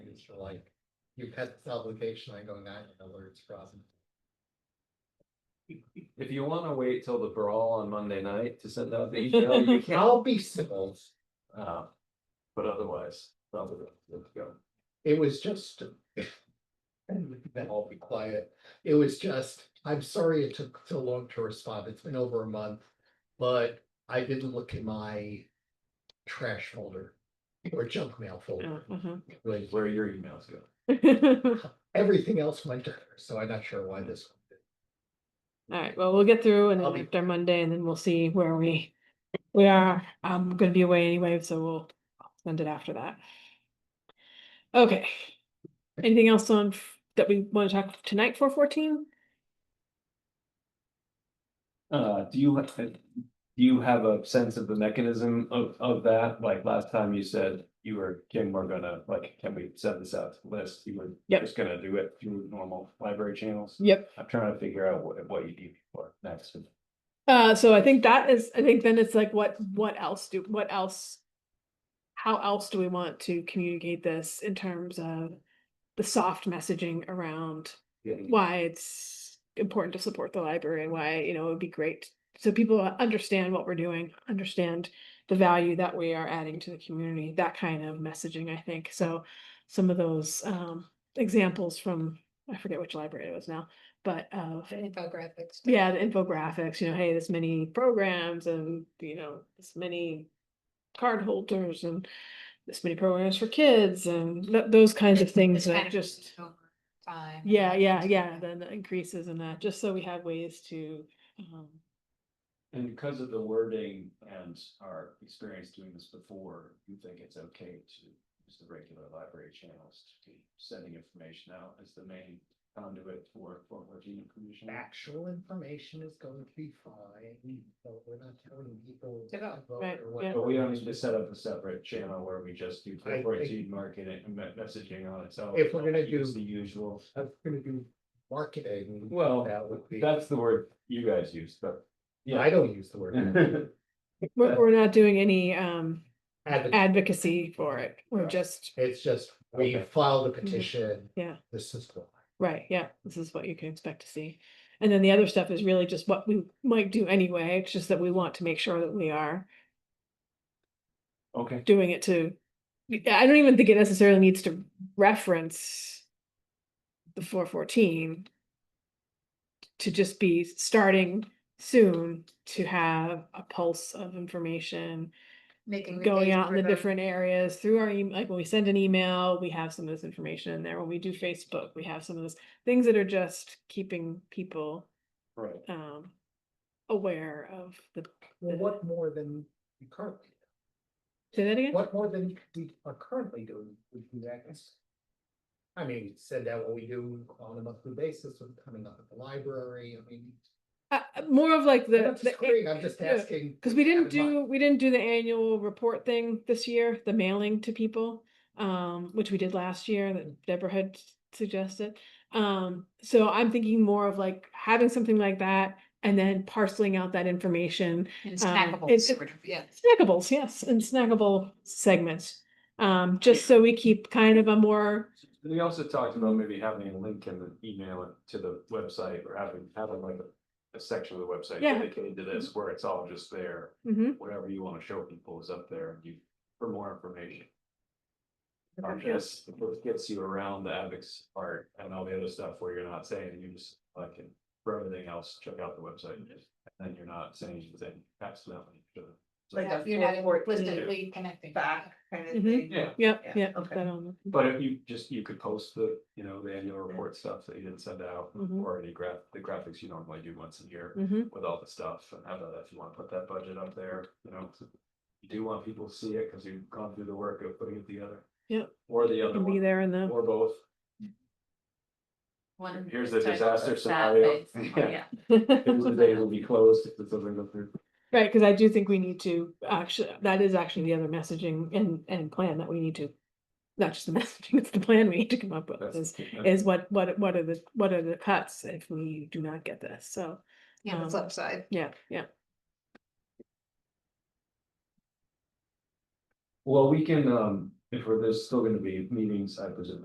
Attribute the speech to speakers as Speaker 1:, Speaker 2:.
Speaker 1: obligations for like, you had this obligation, I go, now you know where it's from.
Speaker 2: If you wanna wait till the brawl on Monday night to send out the email, you can,
Speaker 1: I'll be civil.
Speaker 2: uh, but otherwise, that would, let's go.
Speaker 1: It was just. And then I'll be quiet. It was just, I'm sorry it took so long to respond. It's been over a month. But I didn't look in my trash folder or junk mail folder.
Speaker 3: Oh,
Speaker 1: Like,
Speaker 2: Where your emails go.
Speaker 3: All
Speaker 1: everything else went to her, so I'm not sure why this.
Speaker 3: right, well, we'll get through and
Speaker 1: I'll
Speaker 3: then
Speaker 1: be-
Speaker 3: after Monday and then we'll see where we, we are. I'm gonna be away anyway, so we'll send it after that. Okay. Anything else on f- that we want to talk tonight for fourteen?
Speaker 2: Uh, do you, ha- do you have a sense of the mechanism of, of that? Like last time you said you were, Kim, we're gonna, like, can we send this out to the list? You were
Speaker 3: Yep.
Speaker 2: just gonna do it through normal library channels?
Speaker 3: Yep.
Speaker 2: I'm trying to figure out what, what you need for next.
Speaker 3: Uh, so I think that is, I think then it's like, what, what else do, what else? How else do we want to communicate this in terms of the soft messaging around why it's important to support the library and why, you know, it would be great. So people understand what we're doing, understand the value that we are adding to the community, that kind of messaging, I think. So some of those um examples from, I forget which library it was now, but of
Speaker 4: Infographics.
Speaker 3: yeah, the infographics, you know, hey, this many programs and, you know, this many card holders and this many programs for kids and th- those kinds of things
Speaker 4: It's kind
Speaker 3: that
Speaker 4: of
Speaker 3: just,
Speaker 4: over Time.
Speaker 3: yeah, yeah, yeah, then the increases in that, just so we have ways to, um,
Speaker 2: And because of the wording and our experience doing this before, you think it's okay to use the regular library channels to be sending information out as the main conduit for, for working information?
Speaker 1: Actual information is going to be fine, so we're not telling people.
Speaker 4: To go.
Speaker 1: vote
Speaker 3: Right,
Speaker 1: or
Speaker 3: yeah.
Speaker 1: whatever.
Speaker 2: But we don't need to set up a separate channel where we just do
Speaker 1: I think-
Speaker 2: corporate marketing and me- messaging on its own.
Speaker 1: If we're gonna
Speaker 2: Use
Speaker 1: do-
Speaker 2: The usual,
Speaker 1: I'm gonna do marketing.
Speaker 2: Well,
Speaker 1: That would be,
Speaker 2: that's the word you guys use, but.
Speaker 1: I don't use the word
Speaker 3: we're, we're not doing any, um,
Speaker 1: advocate.
Speaker 3: advocacy for it. We're
Speaker 2: Right.
Speaker 3: just,
Speaker 1: It's just, we
Speaker 2: Okay.
Speaker 1: filed a petition.
Speaker 3: Mm-hmm. Yeah.
Speaker 1: This is why.
Speaker 3: right, yeah, this is what you can expect to see. And then the other stuff is really just what we might do anyway. It's just that we want to make sure that we are
Speaker 2: Okay,
Speaker 3: doing it to, I don't even think it necessarily needs to reference the four fourteen to just be starting soon to have a pulse of information
Speaker 4: Making. the
Speaker 3: going
Speaker 4: case
Speaker 3: out in
Speaker 4: for
Speaker 3: the
Speaker 4: the-
Speaker 3: different areas through our, em- like when we send an email, we have some of this information in there. When we do Facebook, we have some of those things that are just keeping people
Speaker 2: right.
Speaker 3: um aware of the,
Speaker 1: Well, what more than we currently,
Speaker 3: say that again?
Speaker 1: what more than we are currently doing would do that? I mean, you said that what we do on a monthly basis with coming up at the library, I mean.
Speaker 3: Uh, uh, more of like
Speaker 1: I'm
Speaker 3: the.
Speaker 1: not
Speaker 3: the-
Speaker 1: disagreeing, I'm just
Speaker 3: yeah.
Speaker 1: asking.
Speaker 3: Cause we didn't
Speaker 1: have in mind.
Speaker 3: do, we didn't do the annual report thing this year, the mailing to people, um, which we did last year
Speaker 1: Mm.
Speaker 3: that Deborah had s- suggested. Um, so I'm thinking more of like having something like that and then parceling out that information.
Speaker 4: And
Speaker 3: um,
Speaker 4: snackable,
Speaker 3: it's-
Speaker 4: sort of, yeah.
Speaker 3: Snackables, yes, and snackable segments, um, just so we keep kind of a more,
Speaker 2: We also talked about maybe having a link in the email to the website or having, having like a, a section of the website
Speaker 3: Yeah.
Speaker 2: dedicated to this where it's all just there.
Speaker 3: mhm,
Speaker 2: Whatever you want to show people is up there and you, for more information. I
Speaker 3: Okay.
Speaker 2: guess it gets you around the ethics part and all the other stuff where you're not saying, you just like, and for everything else, check out the website. And then you're not saying anything accidentally. to the-
Speaker 5: Like a
Speaker 4: You're not
Speaker 5: 414
Speaker 4: implicitly connecting.
Speaker 5: back kind of
Speaker 3: Mhm.
Speaker 5: thing.
Speaker 2: Yeah,
Speaker 3: yep,
Speaker 5: Yeah,
Speaker 3: yep.
Speaker 5: okay.
Speaker 3: that on the-
Speaker 2: but if you just, you could post the, you know, the annual report stuff that you didn't send out
Speaker 3: Mhm.
Speaker 2: or any graph, the graphics you normally do once a year.
Speaker 3: mhm.
Speaker 2: with all the stuff and have that, if you wanna put that budget up there, you know. You do want people to see it, cause you've gone through the work of putting it together.
Speaker 3: Yep.
Speaker 2: Or the other
Speaker 3: It'll Be
Speaker 2: one,
Speaker 3: there in the,
Speaker 2: or both,
Speaker 5: One
Speaker 2: Here's
Speaker 5: is
Speaker 2: the
Speaker 5: titled
Speaker 2: disaster
Speaker 5: Sad
Speaker 2: scenario.
Speaker 5: Face.
Speaker 2: Yeah.
Speaker 5: Oh, Yeah.
Speaker 2: the day will be closed if it doesn't go through.
Speaker 3: Right, cause I do think we need to actually, that is actually the other messaging and, and plan that we need to. Not just the messaging, it's the plan we need to come up with is,
Speaker 2: That's-
Speaker 3: is what, what, what are the, what are the cuts if we do not get this, so,
Speaker 4: Yeah,
Speaker 3: Um,
Speaker 4: the flip side.
Speaker 3: yeah, yeah.
Speaker 2: Well, we can, um, if we're, there's still gonna be meetings, I presume,